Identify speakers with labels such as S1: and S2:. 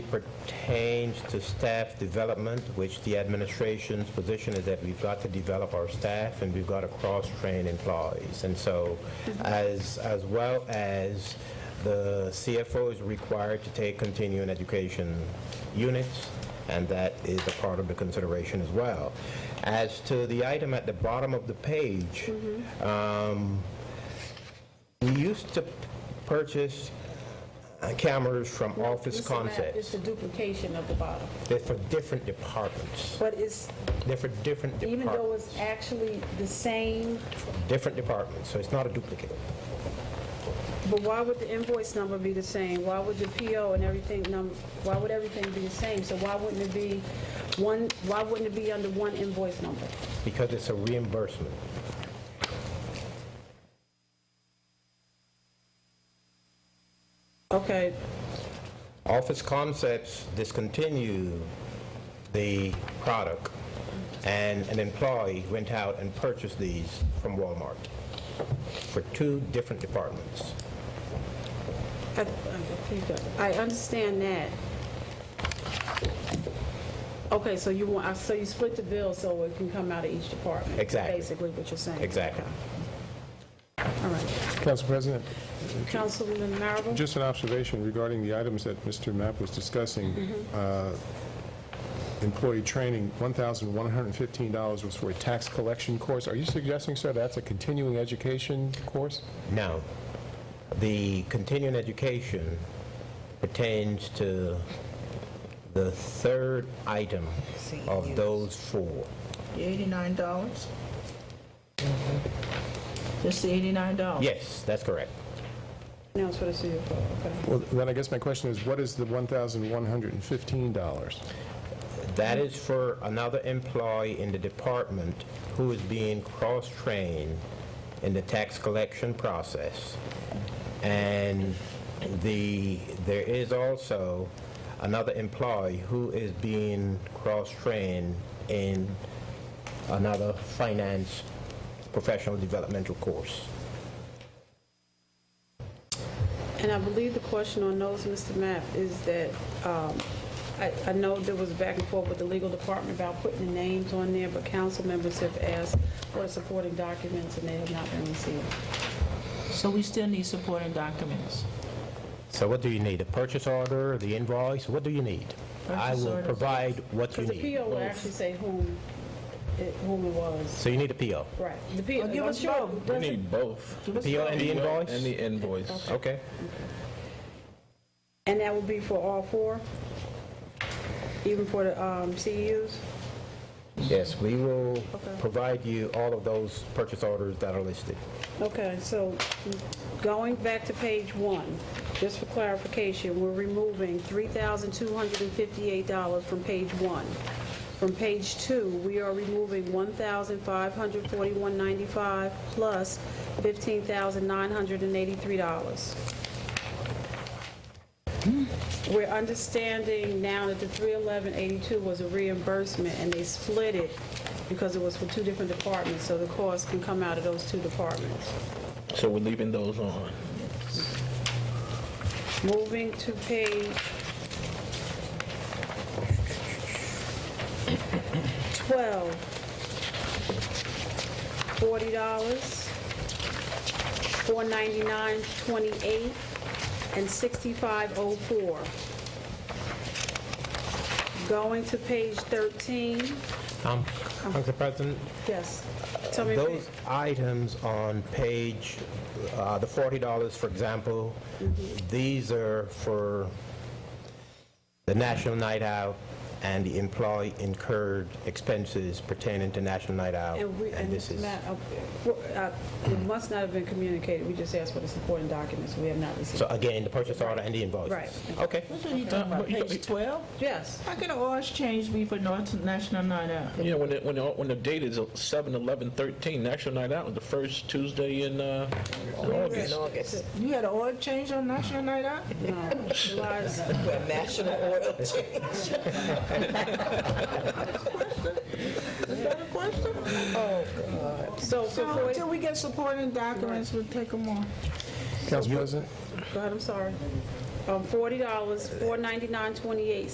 S1: pertains to staff development, which the administration's position is that we've got to develop our staff and we've got to cross-train employees. And so as, as well as the CFO is required to take continuing education units, and that is a part of the consideration as well. As to the item at the bottom of the page, um, we used to purchase uh, cameras from Office
S2: Mr. Matt, It's
S1: Concepts.
S2: a duplication of the bottom.
S1: They're for different departments.
S2: But it's,
S1: They're for different
S2: even though it's
S1: departments.
S2: actually the same,
S1: Different departments, so it's not a duplicate.
S2: but why would the invoice number be the same? Why would the PO and everything number, why would everything be the same? So why wouldn't it be one, why wouldn't it be under one invoice number?
S1: because it's a reimbursement.
S2: Okay,
S1: Office Concepts discontinued the product, and an employee went out and purchased these from Walmart for two different departments.
S2: I- I understand that. Okay, so you want, so you split the bill so it can come out of each department?
S1: Exactly.
S2: Basically what you're saying?
S1: Exactly.
S2: All right.
S3: Council President,
S2: Councilman Marable?
S3: just an observation regarding the items that Mr. Mapp was discussing. Uh, Employee training, $1,115 was for a tax collection course. Are you suggesting, sir, that's a continuing education course?
S1: Now, the continuing education pertains to the third item of those four.
S4: The eighty-nine dollars? Just the eighty-nine dollars?
S1: Yes, that's correct.
S2: Now it's for the CFO, okay.
S3: Well, then I guess my question is, what is the $1,115?
S1: That is for another employee in the department who is being cross-trained in the tax collection process. And the, there is also another employee who is being cross-trained in another finance professional developmental course.
S2: And I believe the question on those, Mr. Mapp, is that, um, I I know there was back and forth with the legal department about putting the names on there, but council members have asked for supporting documents, and they have not been received.
S4: So we still need supporting documents.
S1: So what do you need? A purchase order, the invoice? What do you need? I
S4: Purchase
S1: will
S4: order.
S1: provide what you
S2: Because the
S1: need.
S2: PO will actually say whom, it- whom it was.
S1: So you need a PO.
S2: Right. The PO,
S4: Oh, give
S2: I'm
S4: us
S2: sure.
S4: both.
S5: We need both.
S1: The PO and the invoice?
S5: And the invoice.
S1: Okay.
S2: And that would be for all four? Even for the um, CEUs?
S1: Yes, we will
S2: Okay.
S1: provide you all of those purchase orders that are listed.
S2: Okay, so going back to page one, just for clarification, we're removing $3,258 from page one. From page two, we are removing $1,541.95 plus $15,983. We're understanding now that the 31182 was a reimbursement, and they split it because it was for two different departments, so the cost can come out of those two departments.
S5: So we're leaving those on.
S2: Moving to page 12, $40, 499 28 and 6504 Going to page 13,
S1: Um, Council President,
S2: yes, tell me.
S1: those items on page, uh, the $40, for example, these are for the National Night Out and the employee incurred expenses pertaining to National Night Out.
S2: And we, and
S1: this
S2: Mr.
S1: is,
S2: Matt, uh, for- uh, it must not have been communicated, we just asked for the supporting documents, we have not received.
S1: so again, the purchase order and the invoices.
S2: Right.
S1: Okay.
S4: What are you talking about, page 12?
S2: Yes,
S4: How can the orange change be for North National Night Out?
S5: Yeah, when the, when the, when the date is 7/11/13, National Night Out, was the first Tuesday in, uh, in August.
S4: You had an oil change on National Night Out?
S2: no, July's,
S4: Is that a question?
S2: so for
S4: So
S2: 40,
S4: until we get supporting documents, we'll take them on.
S3: Council President?
S2: go ahead, I'm sorry. um, $40, 499 dollars 28